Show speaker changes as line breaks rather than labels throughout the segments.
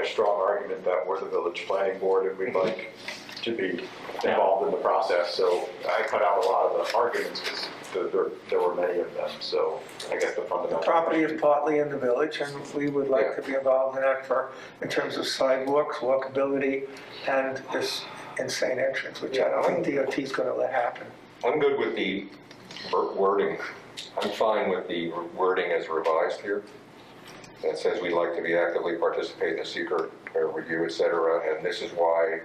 a strong argument that we're the village planning board and we'd like to be involved in the process. So I cut out a lot of the arguments because there, there were many of them. So I guess the fundamental.
Property is partly in the village, and we would like to be involved in that for, in terms of sidewalks, walkability, and this insane entrance, which I don't think DOT is gonna let happen.
I'm good with the ver- wording. I'm fine with the wording as revised here. That says we'd like to be actively participate in the secret uh, review, et cetera, and this is why.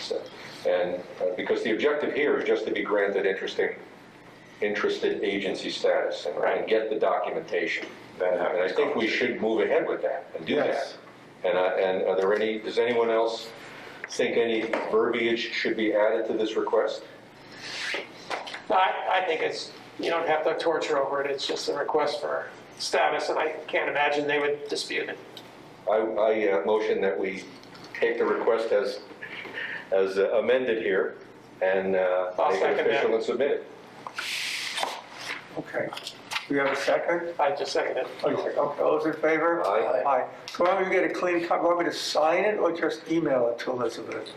So- And uh, because the objective here is just to be granted interesting, interested agency status and- and get the documentation.
Then have
And I think we should move ahead with that and do that.
Yes.
And, I- and are there any, does anyone else think any verbiage should be added to this request?
No, I, I think it's, you don't have to torture over it, it's just a request for status, and I can't imagine they would dispute it.
I, I uh, motion that we take the request as, as amended here and uh,
I'll
make it
second that.
official and submit it.
Okay, we have a second?
I just second it.
Oh, you second. Okay, all those in favor?
Aye.
Aye. So why don't we get a clean cut, want me to sign it or just email it to Elizabeth?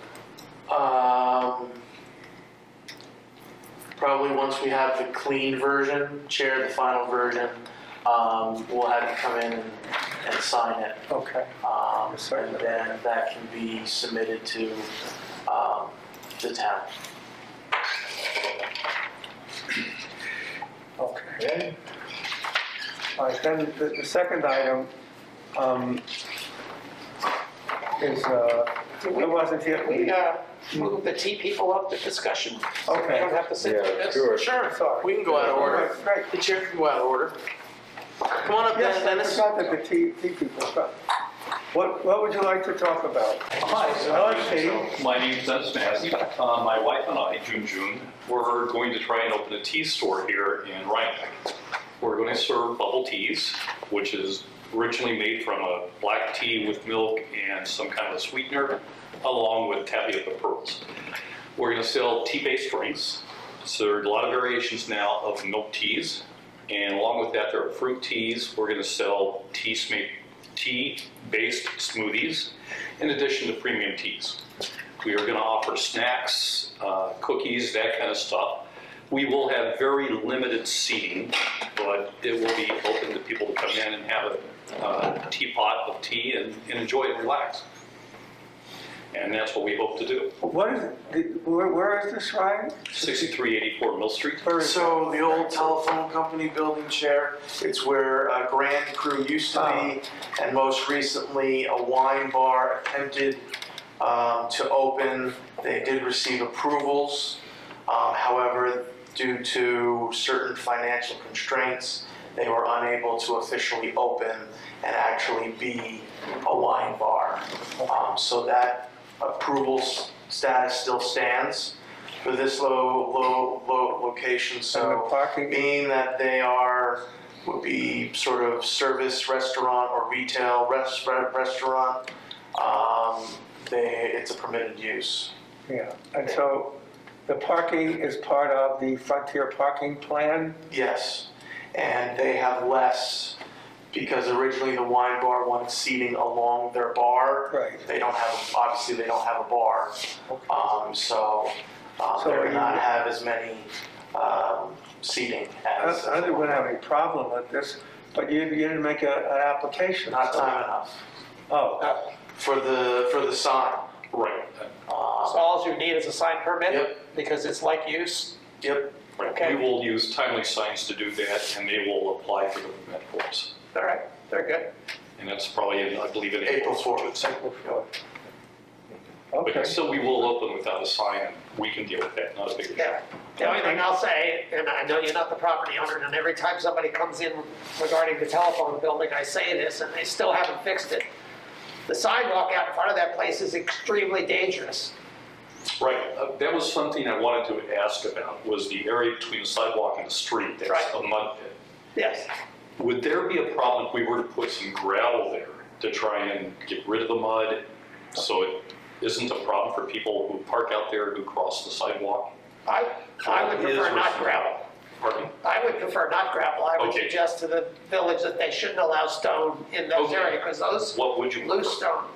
Um, probably once we have the clean version, share the final version, um, we'll have you come in and, and sign it.
Okay,
Um,
Yes, sir.
and then that can be submitted to, um, the town.
okay.
Okay.
All right, then the, the second item, um, is, uh, it wasn't here.
We, uh, move the T people up to discussion. so We
Okay.
don't have to sit through
Yeah,
this.
sure.
Sorry.
We can go out of order.
Right, Right,
The chair can go out of order. Come on up,
Yes, I
Dennis.
forgot that the tea, tea people, but what, what would you like to talk about?
Hi,
Hello, Steve.
my name's Dennis Massey. Uh, My wife and I, June June, we're going to try and open a tea store here in Rhinebeck. We're going to serve bubble teas, which is originally made from a black tea with milk and some kind of sweetener, along with tapioca pearls. We're going to sell tea-based drinks. So there are a lot of variations now of milk teas. And along with that, there are fruit teas. We're going to sell tea sma- tea-based smoothies in addition to premium teas. We are going to offer snacks, uh, cookies, that kind of stuff. We will have very limited seating, but it will be open to people to come in and have a uh, teapot of tea and and enjoy and relax. And that's what we hope to do.
What is, it? did- where, where is this, Ryan?
6384 Mill Street.
Where is it?
So the old telephone company building chair, it's where a grand crew used to be, and most recently, a wine bar attempted um, to open. They did receive approvals, um, however, due to certain financial constraints, they were unable to officially open and actually be a wine bar. Um, So that approval s- status still stands for this low, low, low location,
And the
so
parking,
being that they are, would be sort of service restaurant or retail res- restaurant, um, they, it's a permitted use.
yeah, and so the parking is part of the Frontier Parking Plan?
Yes, and they have less because originally the wine bar wanted seating along their bar.
Right.
They don't have, obviously, they don't have a bar, um, so, um,
So
they're
are you-
not have as many, um, seating
I
as.
I wouldn't have any problem with this, but you, you didn't make a, an application.
Not time enough
Oh,
uh,
for the, for the sign.
Right.
So all you need is a sign permit,
Yep.
because it's like use.
Yep,
Right.
Okay.
We will use timely signs to do that, and they will apply for the permit for us.
All right, very good.
And that's probably, in, I believe, in
April
April.
4th.
April 4th. Okay.
But still, we will open without a sign, and we can deal with that, not a big issue.
Yeah. The only thing I'll say, and I know you're not the property owner, and every time somebody comes in regarding the telephone building, I say this, and they still haven't fixed it. The sidewalk out in front of that place is extremely dangerous.
Right, uh, that was something I wanted to ask about, was the area between the sidewalk and the street, that's
Right.
a mud pit.
Yes.
Would there be a problem if we were to put some gravel there to try and get rid of the mud? So it isn't a problem for people who park out there who cross the sidewalk?
I, I would
Gravel is
prefer not
reasonable.
gravel.
Pardon?
I would prefer not gravel. I would
Okay.
suggest to the village that they shouldn't allow stone in those
Okay.
areas, because those
What would you?
loose stone